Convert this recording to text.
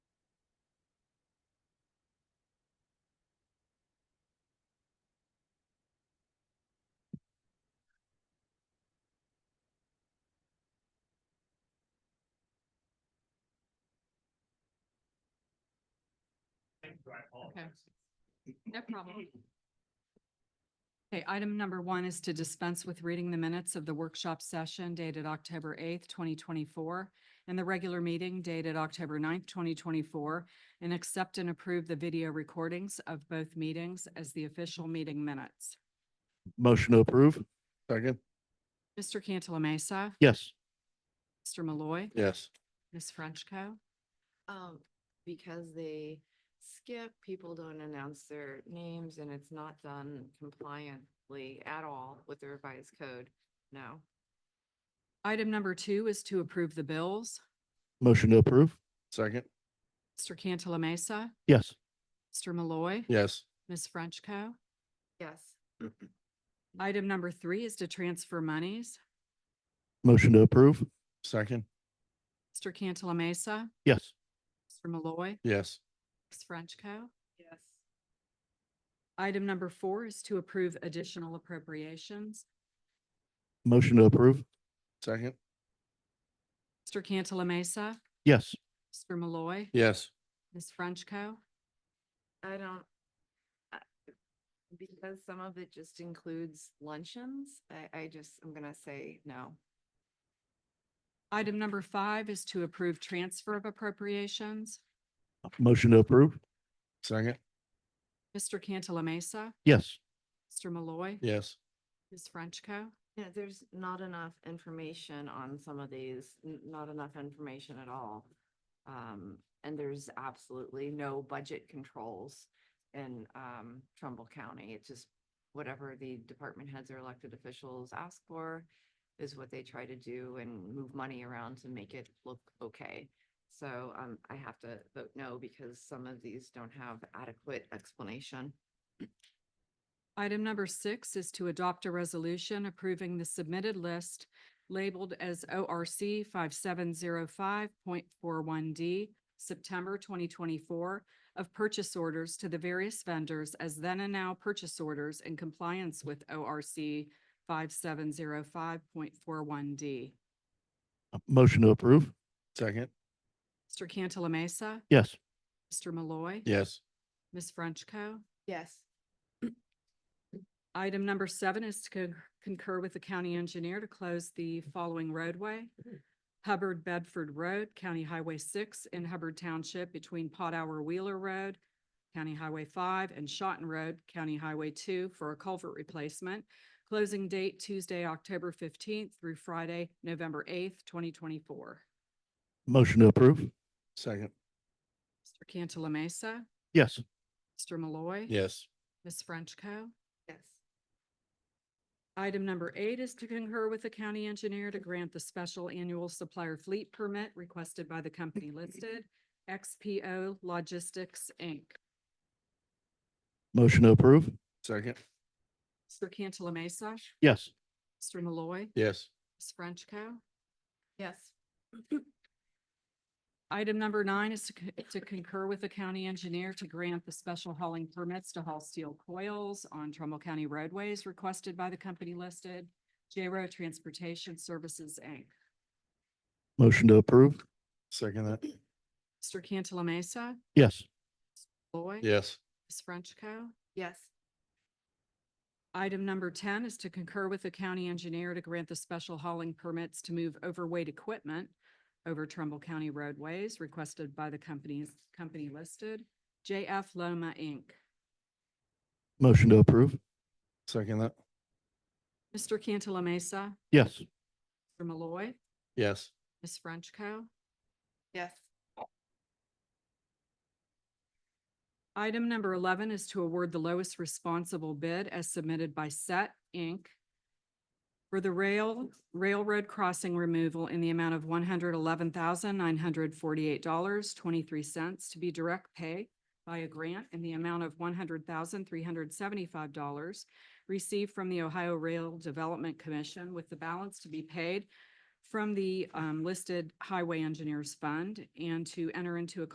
so I apologize. No problem. Okay, item number one is to dispense with reading the minutes of the workshop session dated October eighth, twenty twenty-four, and the regular meeting dated October 9th, twenty twenty-four, and accept and approve the video recordings of both meetings as the official meeting minutes. Motion to approve. Second. Mr. Cantala Mesa, Yes. Mr. Malloy, Yes. Ms. Frenchco. Um, because they skip, people don't announce their names and it's not done compliantly at all with the revised code. No. Item number two is to approve the bills. Motion to approve. Second. Mr. Cantala Mesa, Yes. Mr. Malloy, Yes. Ms. Frenchco. Yes. Item number three is to transfer monies. Motion to approve. Second. Mr. Cantala Mesa, Yes. Mr. Malloy, Yes. Ms. Frenchco. Yes. Item number four is to approve additional appropriations. Motion to approve. Second. Mr. Cantala Mesa, Yes. Mr. Malloy, Yes. Ms. Frenchco. I don't. I- Because some of it just includes luncheons, I, I just, I'm gonna say no. Item number five is to approve transfer of appropriations. Motion to approve. Second. Mr. Cantala Mesa, Yes. Mr. Malloy, Yes. Ms. Frenchco. Yeah, there's not enough information on some of these, n- not enough information at all. Um, and there's absolutely no budget controls in, um, Trumbull County. It's just whatever the department heads or elected officials ask for is what they try to do and move money around to make it look okay. So, um, I have to vote no because some of these don't have adequate explanation. Item number six is to adopt a resolution approving the submitted list labeled as ORC five seven zero five point four one D, September twenty twenty-four, of purchase orders to the various vendors as then and now purchase orders in compliance with ORC five seven zero five point four one D. Motion to approve. Second. Mr. Cantala Mesa, Yes. Mr. Malloy. Yes. Ms. Frenchco. Yes. Item number seven is to con- concur with the county engineer to close the following roadway. Hubbard Bedford Road, County Highway six in Hubbard Township between Pot Hour Wheeler Road, County Highway five and Shotten Road, County Highway two for a culvert replacement. Closing date Tuesday, October fifteenth through Friday, November eighth, twenty twenty-four. Motion to approve. Second. Mr. Cantala Mesa, Yes. Mr. Malloy. Yes. Ms. Frenchco. Yes. Item number eight is to concur with the county engineer to grant the special annual supplier fleet permit requested by the company listed, XPO Logistics, Inc. Motion to approve. Second. Mr. Cantala Mesa, Yes. Mr. Malloy, Yes. Ms. Frenchco. Yes. Item number nine is to co- to concur with the county engineer to grant the special hauling permits to haul steel coils on Trumbull County roadways requested by the company listed, J-Row Transportation Services, Inc. Motion to approve. Second that. Mr. Cantala Mesa, Yes. Malloy, Yes. Ms. Frenchco. Yes. Item number ten is to concur with the county engineer to grant the special hauling permits to move overweight equipment over Trumbull County roadways requested by the companies, company listed, JF Loma, Inc. Motion to approve. Second that. Mr. Cantala Mesa, Yes. Mr. Malloy, Yes. Ms. Frenchco. Yes. Item number eleven is to award the lowest responsible bid as submitted by Set, Inc. for the rail, railroad crossing removal in the amount of one hundred eleven thousand nine hundred forty-eight dollars, twenty-three cents to be direct pay by a grant in the amount of one hundred thousand three hundred seventy-five dollars received from the Ohio Rail Development Commission with the balance to be paid from the um, listed Highway Engineers Fund and to enter into a